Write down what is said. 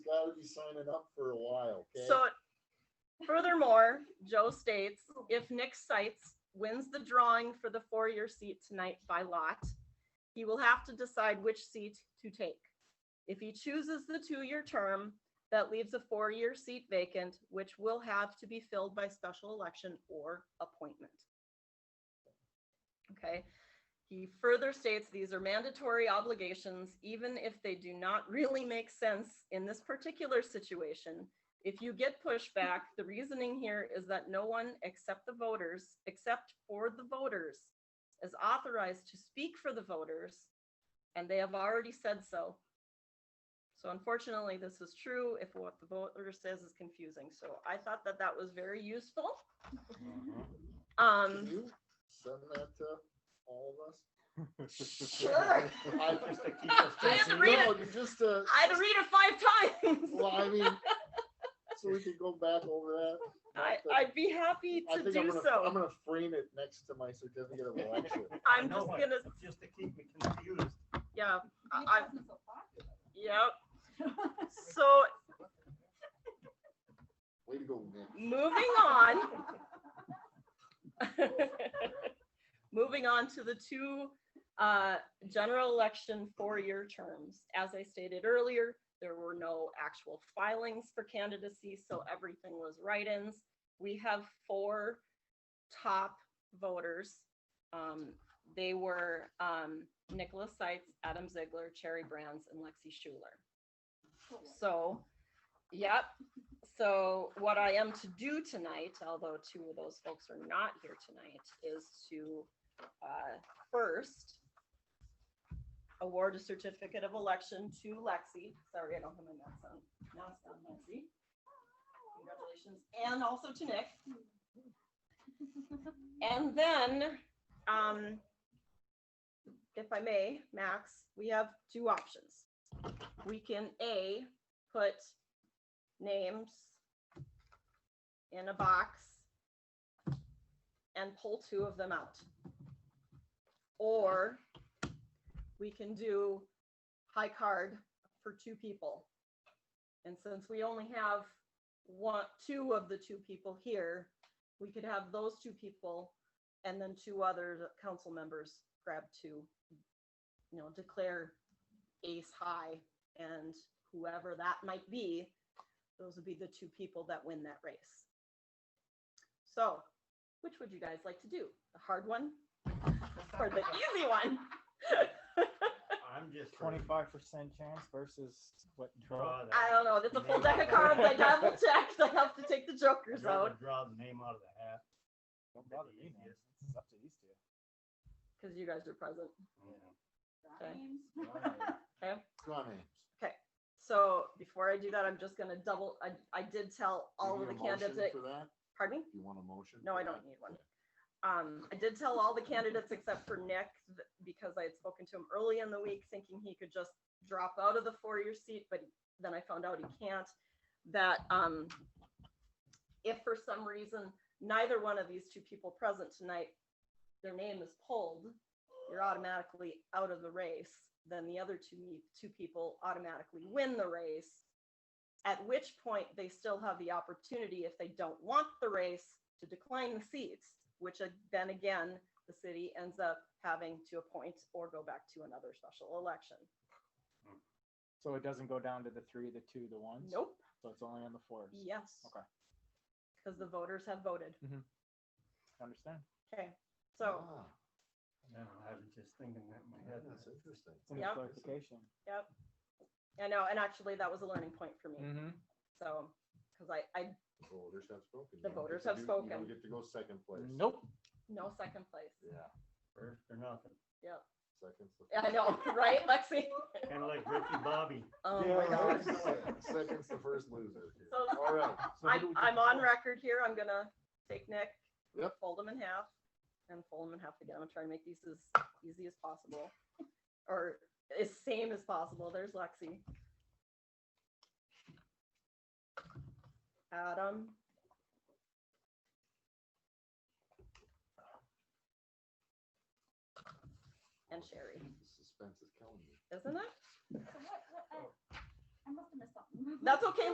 signing up for a while, okay? So furthermore, Joe states, if Nick Seitz wins the drawing for the four-year seat tonight by lot, he will have to decide which seat to take. If he chooses the two-year term, that leaves a four-year seat vacant, which will have to be filled by special election or appointment. Okay, he further states these are mandatory obligations, even if they do not really make sense in this particular situation. If you get pushback, the reasoning here is that no one except the voters, except for the voters, is authorized to speak for the voters, and they have already said so. So unfortunately, this is true if what the voter says is confusing. So I thought that that was very useful. Can Um, you send that to all of us? sure. I- Just to keep us I guessing. didn't read No, Just to, I'd read it five times. well, I mean, so we can go back over that. I, But I'd be happy I to think I'm do gonna- I'm so. gonna frame it next to my certificate of election. I I'm know just it, gonna, but Just to keep me confused. yeah, It I- wasn't so popular. yep. So Way to go, Nick. moving on. Moving on to the two uh, general election four-year terms. As I stated earlier, there were no actual filings for candidacy, so everything was write-ins. We have four top voters. Um, They were um, Nicholas Seitz, Adam Ziegler, Cherry Brands, and Lexi Schuler. So, yep. So what I am to do tonight, although two of those folks are not here tonight, is to uh, first award a certificate of election to Lexi. Sorry, I don't have my mask on. Mask on, Lexi. Congratulations. And also to Nick. And then, um, if I may, Max, we have two options. We can A, put names in a box and pull two of them out. Or we can do high card for two people. And since we only have one, two of the two people here, we could have those two people and then two other council members grab two, you know, declare ace high and whoever that might be, those would be the two people that win that race. So, which would you guys like to do? The hard one or the easy one? I'm just. for Twenty-five percent chance versus what? Draw that. I don't know. It's a full deck of cards. I double checked. I have to take the jokers I'd rather out Draw the name out of the hat. Don't bother me, man. It's up to these two. because you guys are present. Rhymes. Okay. Draw names. So before I do that, I'm just gonna double, I, I did tell all You of the need a motion candidates, For that? pardon me? You want a motion? No, for I that? don't need one. Um, I did tell all the candidates except for Nick, th- because I had spoken to him early in the week thinking he could just drop out of the four-year seat, but then I found out he can't. That, um, if for some reason neither one of these two people present tonight, their name is pulled, you're automatically out of the race. Then the other two, me- two people automatically win the race. At which point, they still have the opportunity, if they don't want the race, to decline the seats, which a- then again, the city ends up having to appoint or go back to another special election. So it doesn't go down to the three, the two, the ones? Nope, So it's only on the fours? yes. Okay. Because the voters have voted. Understand? Okay, so, Ah, No, I was just thinking that in my head. That's interesting. It's an Yep. clarification. yep. I know, and actually, that was a learning point for me, Mm-hmm. so, because I, I, Voters have spoken. The You don't get voters to have do- You spoken. don't get to go second place. Nope. no second place. Yeah, First or nothing. Yep, second's the. I know, right, Lexi? Kind of like Ricky Bobby. Oh Yeah, my right. gosh. Second's the first loser. here. So- All right. So who I, do we I'm do? on record here, I'm gonna take Nick, Yep. fold them in half, and fold them in half again, I'm gonna try and make these as easy as possible. Or as same as possible, there's Lexi. Adam. And Sherry, The Suspense is killing me. isn't it? So what- what- uh, I I must have missed something. That's okay,